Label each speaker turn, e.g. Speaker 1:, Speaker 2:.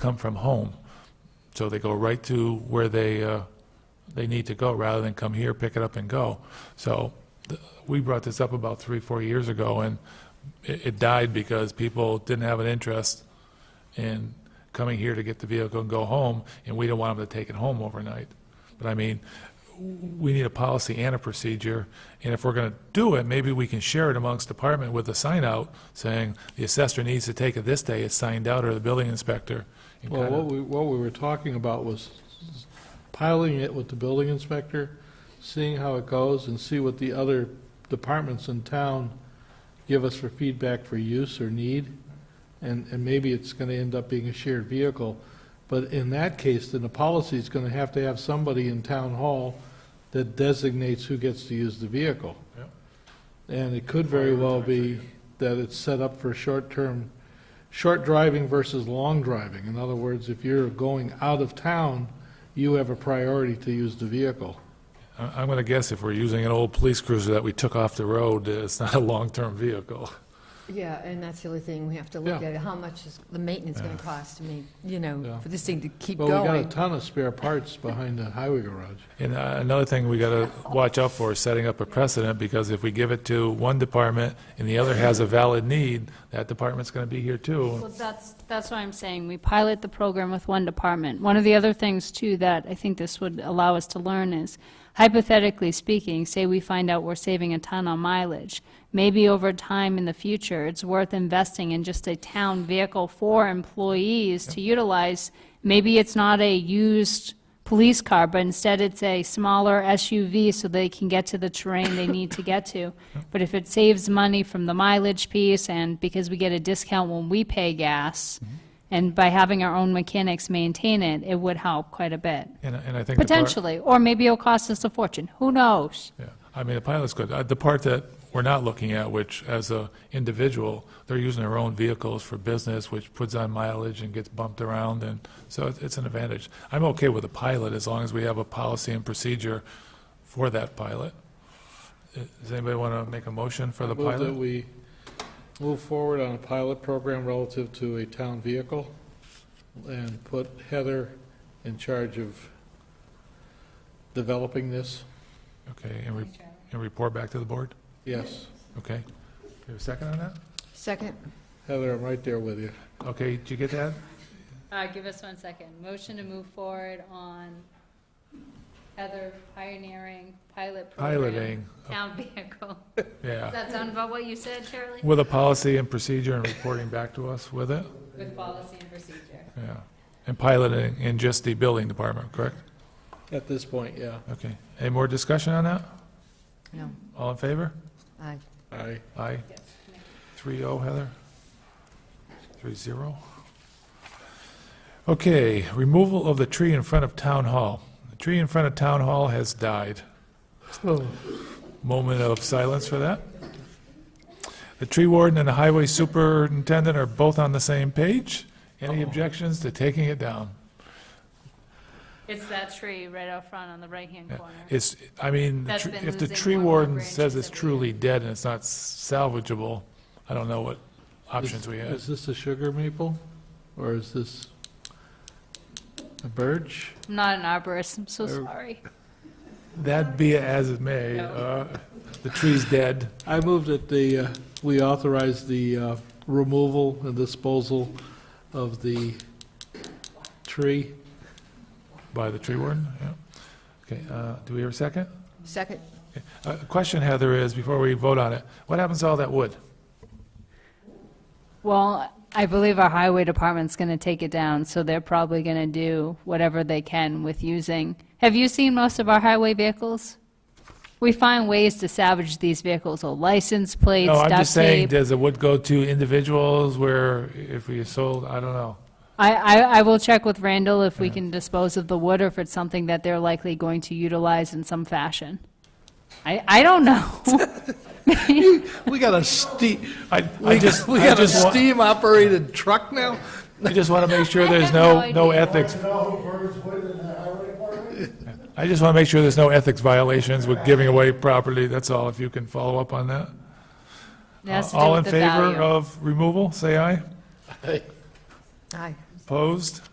Speaker 1: come from home. So they go right to where they, uh, they need to go, rather than come here, pick it up, and go. So th- we brought this up about three, four years ago, and it it died because people didn't have an interest in coming here to get the vehicle and go home, and we didn't want them to take it home overnight. But I mean, we need a policy and a procedure, and if we're going to do it, maybe we can share it amongst department with a sign out saying, the assessor needs to take it this day, it's signed out, or the building inspector. and
Speaker 2: Well,
Speaker 1: kinda-
Speaker 2: what we, what we were talking about was piling it with the building inspector, seeing how it goes, and see what the other departments in town give us for feedback for use or need, and, and maybe it's gonna end up being a shared vehicle. But in that case, then the policy's gonna have to have somebody in town hall that designates who gets to use the vehicle.
Speaker 1: Yep.
Speaker 2: And it could very well be that it's set up for short-term, short driving versus long driving. In other words, if you're going out of town, you have a priority to use the vehicle.
Speaker 1: I- I'm going to guess if we're using an old police cruiser that we took off the road, uh, it's not a long-term vehicle.
Speaker 3: Yeah, and that's the other thing, we have to look
Speaker 2: Yeah.
Speaker 3: at, how much is the maintenance going to cost to me, you know,
Speaker 2: Yeah.
Speaker 3: for this thing to keep
Speaker 2: But we got a
Speaker 3: going?
Speaker 2: ton of spare parts behind the highway garage.
Speaker 1: And uh, another thing we got to watch out for is setting up a precedent, because if we give it to one department and the other has a valid need, that department's going to be here too.
Speaker 4: Well, that's, that's what I'm saying, we pilot the program with one department. One of the other things, too, that I think this would allow us to learn is, hypothetically speaking, say we find out we're saving a ton on mileage, maybe over time in the future, it's worth investing in just a town vehicle for employees to utilize. Maybe it's not a used police car, but instead it's a smaller SUV so they can get to the terrain they need to get to. But if it saves money from the mileage piece and because we get a discount when we pay gas, and by having our own mechanics maintain it, it would help quite a bit,
Speaker 1: And and I think. the part-
Speaker 4: potentially. Or maybe it'll cost us a fortune, who knows?
Speaker 1: Yeah, I mean, the pilot's good. Uh, The part that we're not looking at, which as a individual, they're using their own vehicles for business, which puts on mileage and gets bumped around, and so it- it's an advantage. I'm okay with a pilot as long as we have a policy and procedure for that pilot. Uh, Does anybody want to make a motion for the
Speaker 2: Move that
Speaker 1: pilot?
Speaker 2: we move forward on a pilot program relative to a town vehicle and put Heather in charge of developing this.
Speaker 1: Okay, and re- and report back to the board?
Speaker 2: Yes,
Speaker 1: Okay. Do you have a second on that?
Speaker 3: Second,
Speaker 2: Heather, I'm right there with you.
Speaker 1: Okay, did you get that?
Speaker 4: All right, Uh, give us one second. Motion to move forward on Heather pioneering pilot
Speaker 1: Piloting,
Speaker 4: Town vehicle.
Speaker 1: yeah.
Speaker 4: that sound about what you said, Charlie?
Speaker 1: With a policy and procedure and reporting back to us with it?
Speaker 4: With policy and procedure.
Speaker 1: Yeah, and piloting in just the building department, correct?
Speaker 2: At this point, yeah.
Speaker 1: Okay. Any more discussion on that?
Speaker 3: no,
Speaker 1: All in favor?
Speaker 3: aye.
Speaker 2: Aye.
Speaker 1: Aye. Three oh, Heather? Three zero? Okay, removal of the tree in front of Town Hall. The tree in front of Town Hall has died. Moment of silence for that. The tree warden and the highway superintendent are both on the same page. Any objections to taking it down?
Speaker 4: It's that tree right out front on the right-hand
Speaker 1: Yeah.
Speaker 4: corner.
Speaker 1: It's, I mean, the
Speaker 4: That's
Speaker 1: tr-
Speaker 4: been
Speaker 1: if the
Speaker 4: losing
Speaker 1: tree
Speaker 4: more and more
Speaker 1: warden says
Speaker 4: branches
Speaker 1: it's
Speaker 4: every
Speaker 1: truly dead and it's not salvageable, I don't know what options we have.
Speaker 2: Is this a sugar maple, or is this a birch?
Speaker 4: I'm not an arborist, I'm so
Speaker 2: Oh.
Speaker 4: sorry.
Speaker 1: That be it as it may,
Speaker 4: No.
Speaker 1: uh, the tree's dead.
Speaker 2: I move that the, uh, we authorize the uh, removal and disposal of the tree.
Speaker 1: By the tree warden, yeah. Okay, uh, do we have a second?
Speaker 3: Second,
Speaker 1: Uh, Question, Heather, is, before we vote on it, what happens to all that wood?
Speaker 4: Well, I believe our highway department's going to take it down, so they're probably going to do whatever they can with using. Have you seen most of our highway vehicles? We find ways to salvage these vehicles, so license plates,
Speaker 1: No, I'm
Speaker 4: duct
Speaker 1: just saying,
Speaker 4: tape.
Speaker 1: does the wood go to individuals where if we sold, I don't know.
Speaker 4: I, I, I will check with Randall if we can dispose of the wood or if it's something that they're likely going to utilize in some fashion. I, I don't know.
Speaker 2: We got a steam,
Speaker 1: I I
Speaker 2: we
Speaker 1: just,
Speaker 2: got we
Speaker 1: I
Speaker 2: got a
Speaker 1: just want,
Speaker 2: steam-operated truck now?
Speaker 1: I just want to make sure
Speaker 4: I
Speaker 1: there's
Speaker 4: have
Speaker 1: no,
Speaker 4: no
Speaker 1: no
Speaker 4: idea.
Speaker 1: ethics
Speaker 5: No birds put in the highway department?
Speaker 1: I just want to make sure there's no ethics violations with giving away property, that's all, if you can follow up on that.
Speaker 4: It has to do
Speaker 1: Uh, All in
Speaker 4: with the
Speaker 1: favor
Speaker 4: value.
Speaker 1: of removal, say aye.
Speaker 3: aye.
Speaker 1: Opposed?